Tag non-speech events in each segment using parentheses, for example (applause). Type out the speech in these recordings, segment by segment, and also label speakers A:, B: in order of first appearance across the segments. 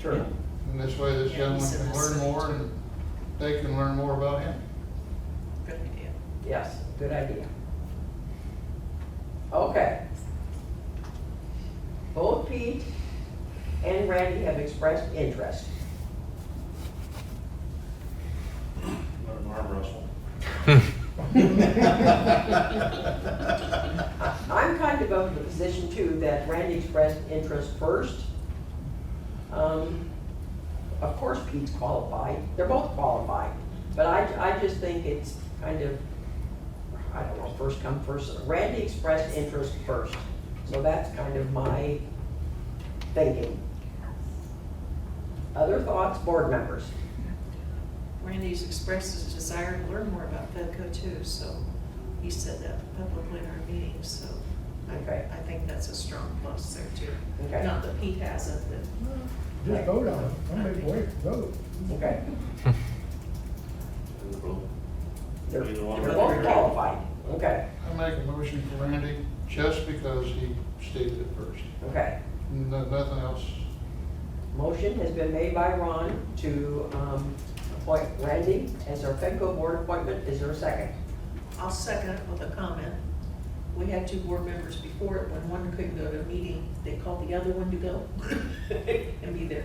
A: Sure.
B: And this way this
C: Yeah, he
B: gentleman
C: said
B: can
C: that
B: learn
C: same
B: more
C: too.
B: and they can learn more about him.
C: Good idea.
D: Yes, good idea. Okay. Both Pete and Randy have expressed interest.
A: Learn arm wrestle.
D: I- Uh, I'm kind of of the position too that Randy expressed interest first. Um, Of course Pete's qualified, they're both qualified, but I, I just think it's kind of, I don't know, first come, first, Randy expressed interest first, so that's kind of my thinking. Other thoughts, board members?
C: Randy's expressed his desire to learn more about Pepco too, so he said that publicly in our meeting, so I,
D: Okay.
C: I think that's a strong plus there too.
D: Okay.
C: Not that Pete hasn't, but
E: Just vote on it, don't make wait, vote.
D: Okay. They're
A: Either one.
D: they're both qualified, okay,
B: I make a motion for Randy just because he stated it first.
D: okay.
B: No- Nothing else.
D: Motion has been made by Ron to um, appoint Randy as our FEDCO board appointment. Is there a second?
C: I'll second it with a comment. We had two board members before it, when one couldn't go to a meeting, they called the other one to go (laughs) and be there.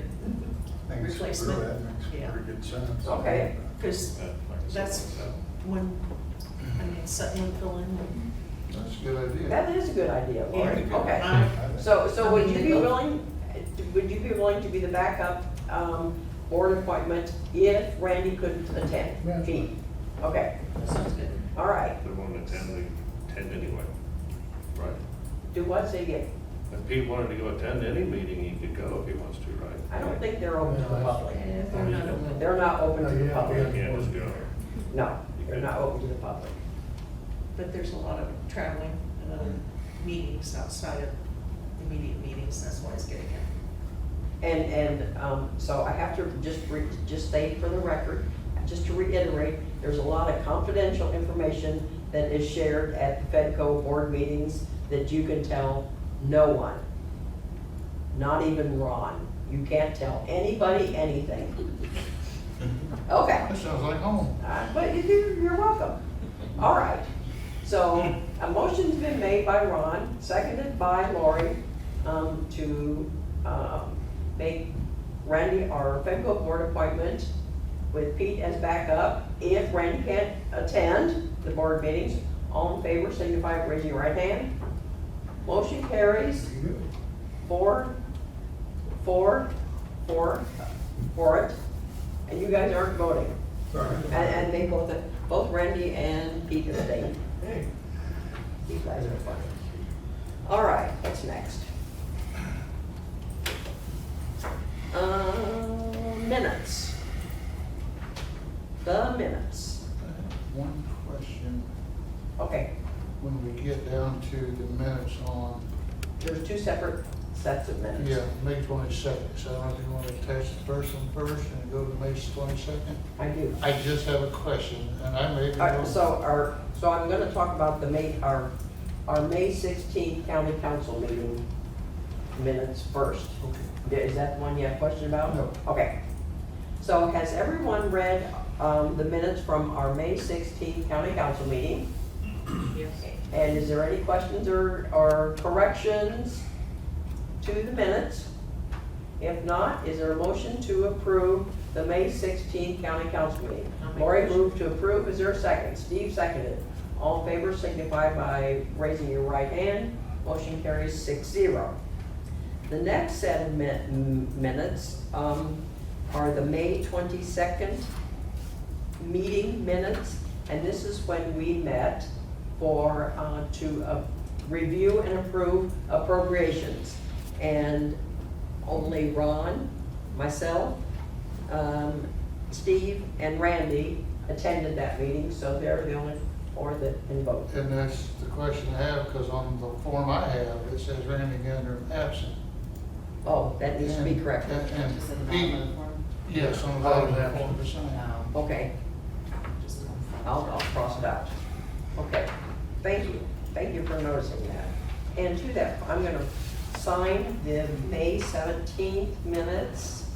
C: Replacement. Yeah.
B: good sense.
D: Okay.
F: uh,
C: Cause That's- when, I mean, suddenly fill in when.
B: That's a good idea.
D: That is a good idea, Lori.
C: Yeah.
D: Okay.
C: I-
D: So, so would you be willing, would you be willing to be the backup um, board appointment if Randy couldn't attend? Pete? Okay,
C: Sounds good.
D: all right.
F: They wanted to attend, they attend anyway. Right.
D: Do what, say again?
F: If Pete wanted to go attend any meeting, he could go if he wants to, right?
D: I don't think they're open to the public.
C: And if they're not open,
D: They're not open to the
F: He
D: public.
F: can't just go.
D: No, they're not open to the public.
C: but there's a lot of traveling and other meetings outside of immediate meetings, that's why it's getting out.
D: And, and, um, so I have to just re, just state for the record, just to reiterate, there's a lot of confidential information that is shared at the FedCo board meetings that you can tell no one. Not even Ron. You can't tell anybody anything. Okay.
B: That sounds like home.
D: Uh, But you- you're, you're welcome. All right. So a motion's been made by Ron, seconded by Lori, um, to, um, make Randy our FEMCO board appointment with Pete as backup. If Randy can't attend the board meetings, all in favor, signify by raising your right hand. Motion carries four, four, four, for it. And you guys aren't voting. And, and they both, both Randy and Pete have stayed. You guys are funny. All right, what's next? Um, minutes. The minutes.
B: One question,
D: Okay,
B: when we get down to the minutes on,
D: there's two separate sets of minutes.
B: yeah, May twenty-second, so I don't know if you want to attach the first one first and go to May twenty-second.
D: I do.
B: I just have a question, and I may be.
D: All right,
B: wrong.
D: so our, so I'm gonna talk about the May, our, our May sixteenth county council meeting minutes first.
B: Okay.
D: Yeah, Is that the one you have a question about?
B: No.
D: Okay. So has everyone read um, the minutes from our May 16 county council meeting?
C: Yes.
D: And is there any questions or, or corrections to the minutes? If not, is there a motion to approve the May 16 county council meeting?
C: I'll make a
D: Lori
C: motion.
D: moved to approve, is there a second? Steve seconded. All in favor signify by raising your right hand. Motion carries six zero. The next set of min- m- minutes um, are the May 22nd meeting minutes, and this is when we met for, uh, to uh, review and approve appropriations. And only Ron, myself, um, Steve, and Randy attended that meeting, so they're the only four that can vote.
B: And that's the question I have, because on the form I have, it says Randy Gander absent.
D: Oh, that needs to be
B: And-
D: corrected.
B: and- and
G: Just in the
B: Pete-
G: bottom of the form?
B: Yes, on the
D: Oh,
B: bottom of
D: yeah.
B: that one percent.
G: No,
D: Okay.
G: just one.
D: I'll, I'll cross it out. Okay, thank you, thank you for noticing that. And to that, I'm gonna sign the May seventeenth minutes.